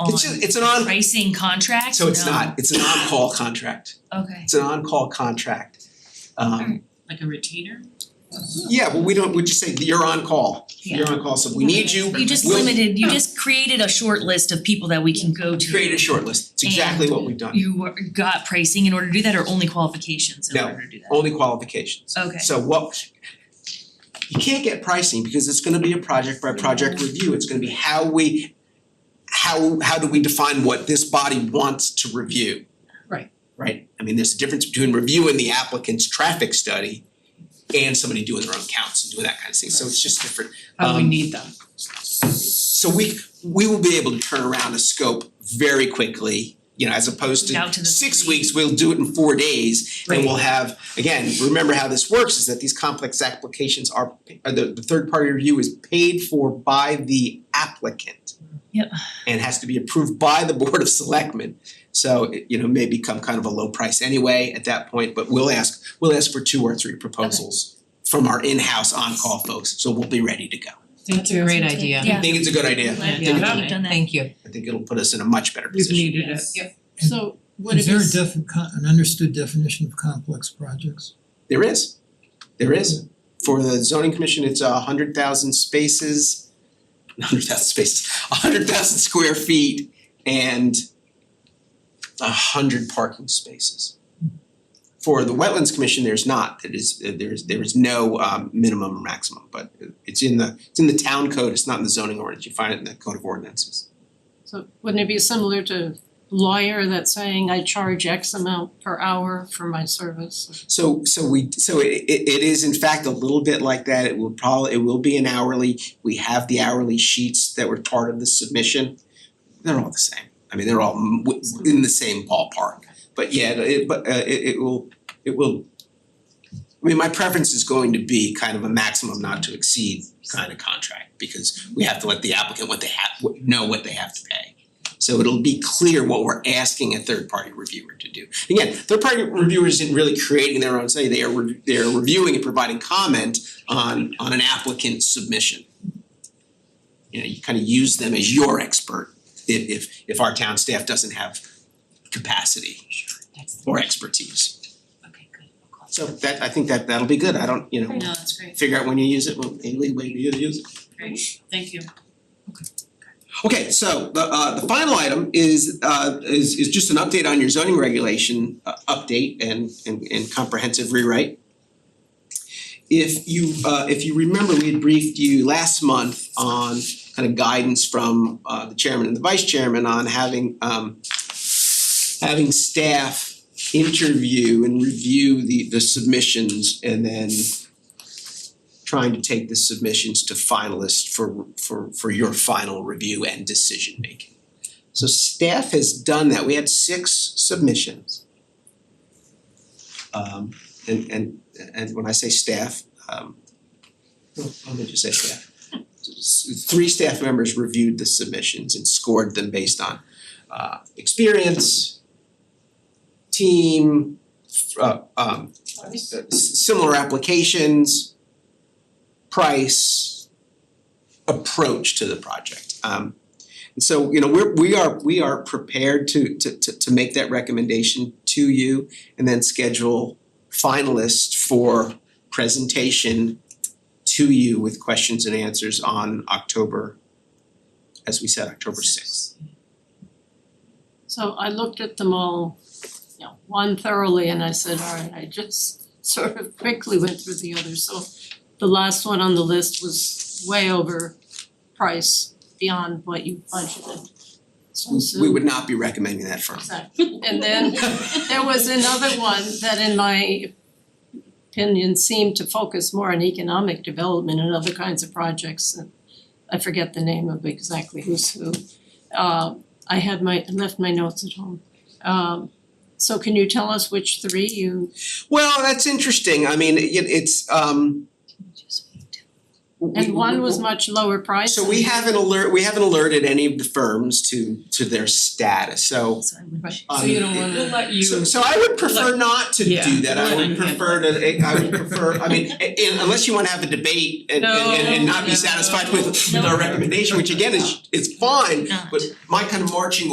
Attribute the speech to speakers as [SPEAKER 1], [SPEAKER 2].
[SPEAKER 1] on
[SPEAKER 2] It's just, it's an on,
[SPEAKER 1] pricing contract?
[SPEAKER 2] so it's
[SPEAKER 1] No.
[SPEAKER 2] not, it's an on-call contract,
[SPEAKER 1] Okay,
[SPEAKER 2] it's an on-call contract. Um,
[SPEAKER 3] like a retainer?
[SPEAKER 2] yeah, but we don't, we just say you're on call, you're on call, so if we need you,
[SPEAKER 1] you just
[SPEAKER 2] we'll-
[SPEAKER 1] limited, you just created a short list of people that we can go to.
[SPEAKER 2] Create a short list, it's exactly what we've done,
[SPEAKER 1] You were- got pricing in order to do that or only qualifications in
[SPEAKER 2] No,
[SPEAKER 1] order to do that?
[SPEAKER 2] only qualifications.
[SPEAKER 1] Okay.
[SPEAKER 2] So what, you can't get pricing because it's gonna be a project by project review, it's gonna be how we, how how do we define what this body wants to review?
[SPEAKER 3] Right.
[SPEAKER 2] Right, I mean, there's a difference between reviewing the applicant's traffic study and somebody doing their own counts and doing that kind of thing, so it's just different.
[SPEAKER 3] Oh, we
[SPEAKER 2] Um,
[SPEAKER 3] need them.
[SPEAKER 2] So we we will be able to turn around a scope very quickly, you know, as opposed to
[SPEAKER 1] Down to the
[SPEAKER 2] six
[SPEAKER 1] three.
[SPEAKER 2] weeks, we'll do it in four days.
[SPEAKER 1] Right.
[SPEAKER 2] And we'll have, again, remember how this works is that these complex applications are, uh, the the third party review is paid for by the applicant.
[SPEAKER 1] Yep.
[SPEAKER 2] And has to be approved by the board of selectmen. So it, you know, may become kind of a low price anyway at that point, but we'll ask, we'll ask for two or three proposals from our in-house on-call folks, so we'll be ready to go.
[SPEAKER 3] That's a great idea.
[SPEAKER 1] Yeah.
[SPEAKER 2] I think it's a good idea.
[SPEAKER 1] Glad
[SPEAKER 3] Yeah.
[SPEAKER 1] that you've done that.
[SPEAKER 3] Thank you.
[SPEAKER 2] I think it'll put us in a much better
[SPEAKER 3] We've
[SPEAKER 2] position.
[SPEAKER 3] needed it.
[SPEAKER 4] Yep.
[SPEAKER 5] So
[SPEAKER 4] what
[SPEAKER 5] Is
[SPEAKER 4] it
[SPEAKER 5] there a
[SPEAKER 4] is-
[SPEAKER 5] defi- con- an understood definition of complex projects?
[SPEAKER 2] There is, there is. For the zoning commission, it's a hundred thousand spaces, hundred thousand spaces, a hundred thousand square feet and a hundred parking spaces. For the wetlands commission, there's not, it is, there is, there is no um minimum or maximum, but it's in the, it's in the town code, it's not in the zoning ordinance, you find it in the code of ordinances.
[SPEAKER 4] So wouldn't it be similar to lawyer that's saying I charge X amount per hour for my service?
[SPEAKER 2] So so we so it it it is in fact a little bit like that. It will probably it will be an hourly. We have the hourly sheets that were part of the submission. They're all the same. I mean, they're all m- w- in the same ballpark. But yeah, it but uh it it will it will I mean, my preference is going to be kind of a maximum not to exceed kind of contract because we have to let the applicant what they have what- know what they have to pay. So it'll be clear what we're asking a third party reviewer to do. Again, third party reviewers isn't really creating their own study, they are re- they are reviewing and providing comment on on an applicant submission. You know, you kind of use them as your expert if if if our town staff doesn't have capacity or expertise.
[SPEAKER 1] Okay, good.
[SPEAKER 2] So that I think that that'll be good, I don't, you know,
[SPEAKER 4] Great.
[SPEAKER 3] No, that's great,
[SPEAKER 2] figure out when you use it, when maybe when you use it.
[SPEAKER 3] great, thank you.
[SPEAKER 2] Okay, so the uh the final item is uh is is just an update on your zoning regulation uh update and and and comprehensive rewrite. If you uh if you remember, we had briefed you last month on kind of guidance from uh the chairman and the vice chairman on having um having staff interview and review the the submissions and then trying to take the submissions to finalists for for for your final review and decision making. So staff has done that. We had six submissions. Um and and and when I say staff, um let me just say staff. S- Three staff members reviewed the submissions and scored them based on uh experience, team, f- uh um uh, s- similar applications, price, approach to the project. Um and so, you know, we're we are we are prepared to to to to make that recommendation to you and then schedule finalists for presentation to you with questions and answers on October, as we said, October sixth.
[SPEAKER 4] So I looked at them all, you know, one thoroughly and I said, all right, I just sort of quickly went through the others, so the last one on the list was way over price beyond what you budgeted. So so-
[SPEAKER 2] We would not be recommending that firm.
[SPEAKER 4] Exactly. and then There was another one that in my opinion seemed to focus more on economic development and other kinds of projects. and I forget the name of exactly who's who. Uh I had my, left my notes at home. Um so can you tell us which three you,
[SPEAKER 2] Well, that's interesting. I mean, it it's um we-
[SPEAKER 4] And one was much lower price.
[SPEAKER 2] So we haven't alert, we haven't alerted any of the firms to to their status, so
[SPEAKER 1] So I would.
[SPEAKER 2] um
[SPEAKER 3] So you don't wanna.
[SPEAKER 2] it-
[SPEAKER 3] let
[SPEAKER 2] So so I would prefer not to do
[SPEAKER 3] Yeah.
[SPEAKER 2] that, I would
[SPEAKER 3] Yeah.
[SPEAKER 2] prefer to, I would prefer, I mean, i- i- unless you wanna have a debate and and and not be
[SPEAKER 3] No,
[SPEAKER 2] satisfied with with
[SPEAKER 1] no.
[SPEAKER 2] our recommendation, which again is, it's fine,
[SPEAKER 1] Not.
[SPEAKER 2] but my kind of marching